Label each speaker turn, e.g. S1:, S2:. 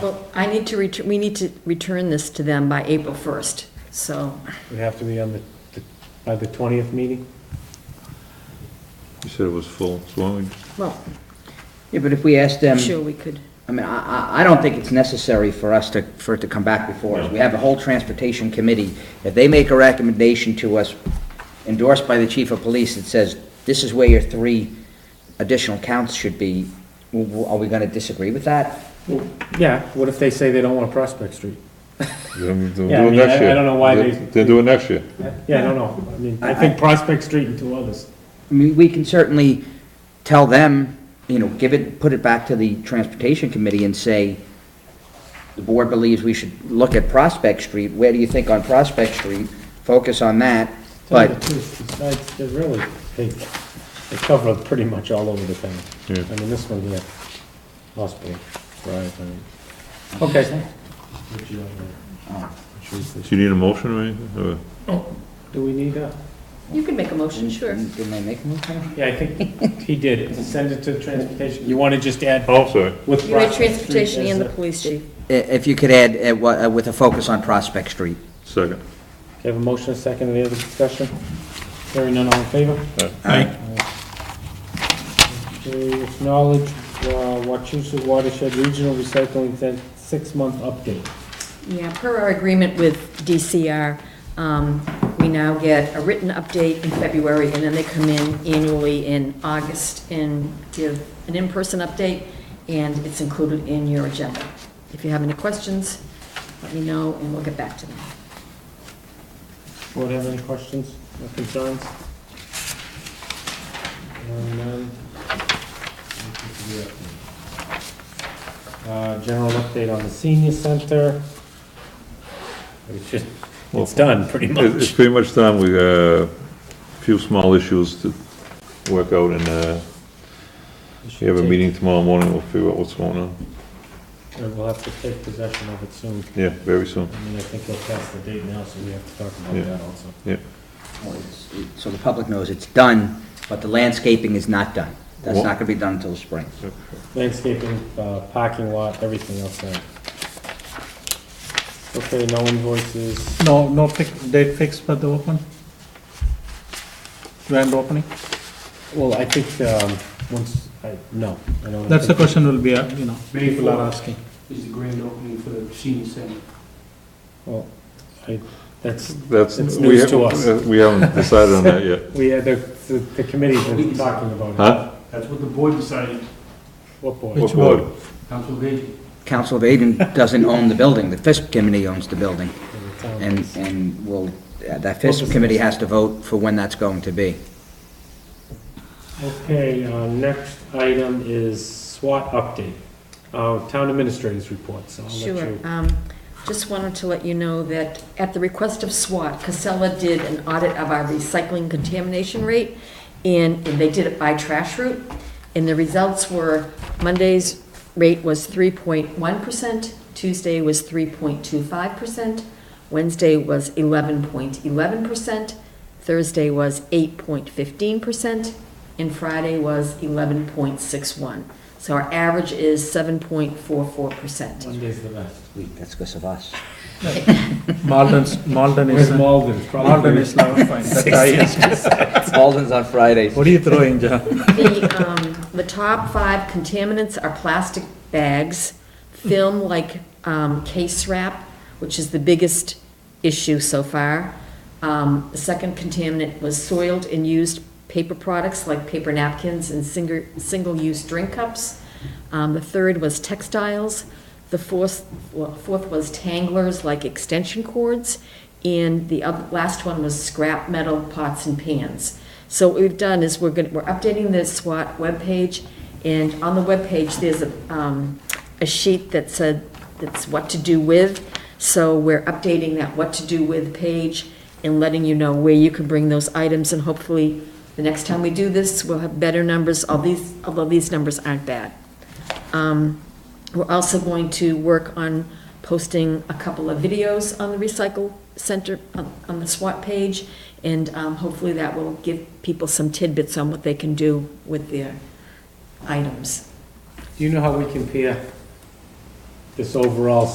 S1: Well, I need to return, we need to return this to them by April 1st, so,
S2: Would have to be on the, the- by the 20th meeting?
S3: You said it was full, so why don't we just
S1: well,
S4: Yeah, but if we ask them,
S1: I'm sure we could,
S4: I mean, I, I- I don't think it's necessary for us to, for it to come back before us. We have a whole transportation committee. If they make a recommendation to us endorsed by the chief of police that says, this is where your three additional counts should be, w- w- are we gonna disagree with that?
S2: Well, Yeah, what if they say they don't want Prospect Street?
S3: They'll they'll
S2: Yeah, I
S3: do it
S2: mean, I-
S3: next
S2: I
S3: year.
S2: don't know why they-
S3: They'll do it next year.
S2: Yeah, I don't know. I mean, I think Prospect Street and two others.
S4: I mean, we can certainly tell them, you know, give it, put it back to the transportation committee and say, the board believes we should look at Prospect Street. Where do you think on Prospect Street? Focus on that,
S2: Tell you
S4: but
S2: the truth, besides, they're really, they, they cover pretty much all over the town.
S3: Yeah.
S2: I mean, this one here, hospital, drive, I mean. Okay.
S3: Do you need a motion or anything? or-
S2: Do we need a?
S1: you could make a motion, sure.
S4: Didn't didn't they make a motion?
S2: Yeah, I think he did. Send it to transportation. You want to just add
S3: Oh, sorry.
S2: with
S1: You had
S2: Prospect Street
S1: transportation
S2: as
S1: and the
S2: a-
S1: police chief.
S4: I- If you could add, uh, wha- uh, with a focus on Prospect Street.
S3: Second.
S2: Okay, Have a motion, a second, any other discussion? Hearing none, all in favor?
S3: Aye.
S2: To acknowledge uh, Wachusett Watershed Regional Recycling Cent- six-month update.
S1: Yeah, per our agreement with DCR, um, we now get a written update in February, and then they come in annually in August and give an in-person update, and it's included in your agenda. If you have any questions, let me know, and we'll get back to them.
S2: Board have any questions or concerns? Hearing none. Uh, General update on the senior center. It's just, it's done, pretty
S3: It- It's pretty much done. We, uh, few small issues to work out and, uh, we have a meeting tomorrow morning. We'll figure out what's going on.
S2: We'll have to take possession of it soon.
S3: Yeah, very soon.
S2: I mean, I think he'll pass the date now, so we have to talk about
S3: Yeah.
S2: that also.
S4: Well, it's- it- So the public knows it's done, but the landscaping is not done. That's not gonna be done until spring.
S2: Landscaping, uh, parking lot, everything else there. Okay, no invoices.
S5: No, no pic, date fixed for the open? Grand opening?
S2: Well, I think, um, once, I, no, I don't.
S5: That's the
S2: think-
S5: question will be, uh, you know,
S6: May
S5: people are
S6: 4th
S5: asking.
S6: is the grand opening for the senior center.
S2: Well, I, that's,
S3: That's.
S2: It's
S3: we
S2: news
S3: have-
S2: to us.
S3: uh, We haven't decided on that yet.
S2: we, had the, the the committee's been talking about it.
S3: Huh?
S6: That's what the board decided,
S2: What board?
S3: What board?
S6: Council of Aging.
S4: Council of Aging doesn't own the building, the FISP committee owns the building,
S2: The town.
S4: and, and will, uh, that
S2: Focus on
S4: FISP committee
S2: this.
S4: has to vote for when that's going to be.
S2: Okay, uh, next item is SWAT update. Uh, town administrators report, so I'll let you.
S1: Sure. Um, Just wanted to let you know that at the request of SWAT, Casella did an audit of our recycling contamination rate, and and they did it by trash route. And the results were, Monday's rate was 3.1%, Tuesday was 3.25%, Wednesday was 11.11%, Thursday was 8.15%, and Friday was 11.61. So our average is 7.44%.
S2: Monday's the best.
S4: Wait, That's because of us.
S5: Malden, Malden
S2: Where's
S5: is, uh,
S2: Malden?
S5: Malden is now fine, that's highest.
S4: Walden's on Fridays.
S5: What are you throwing, John?
S1: The, um, the top five contaminants are plastic bags, film like, um, case wrap, which is the biggest issue so far. Um, the second contaminant was soiled and used paper products like paper napkins and singer, single-use drink cups. Um, the third was textiles. The fourth, well, fourth was tanglers like extension cords. And the oth- last one was scrap metal pots and pans. So what we've done is we're going, we're updating the SWAT webpage, and on the webpage, there's a, um, a sheet that said, that's what to do with. So we're updating that what to do with page and letting you know where you can bring those items, and hopefully, the next time we do this, we'll have better numbers, all these, although these numbers aren't bad. Um, We're also going to work on posting a couple of videos on the Recycle Center, on on the SWAT page, and um, hopefully that will give people some tidbits on what they can do with their items.
S2: Do you know how we compare the this overall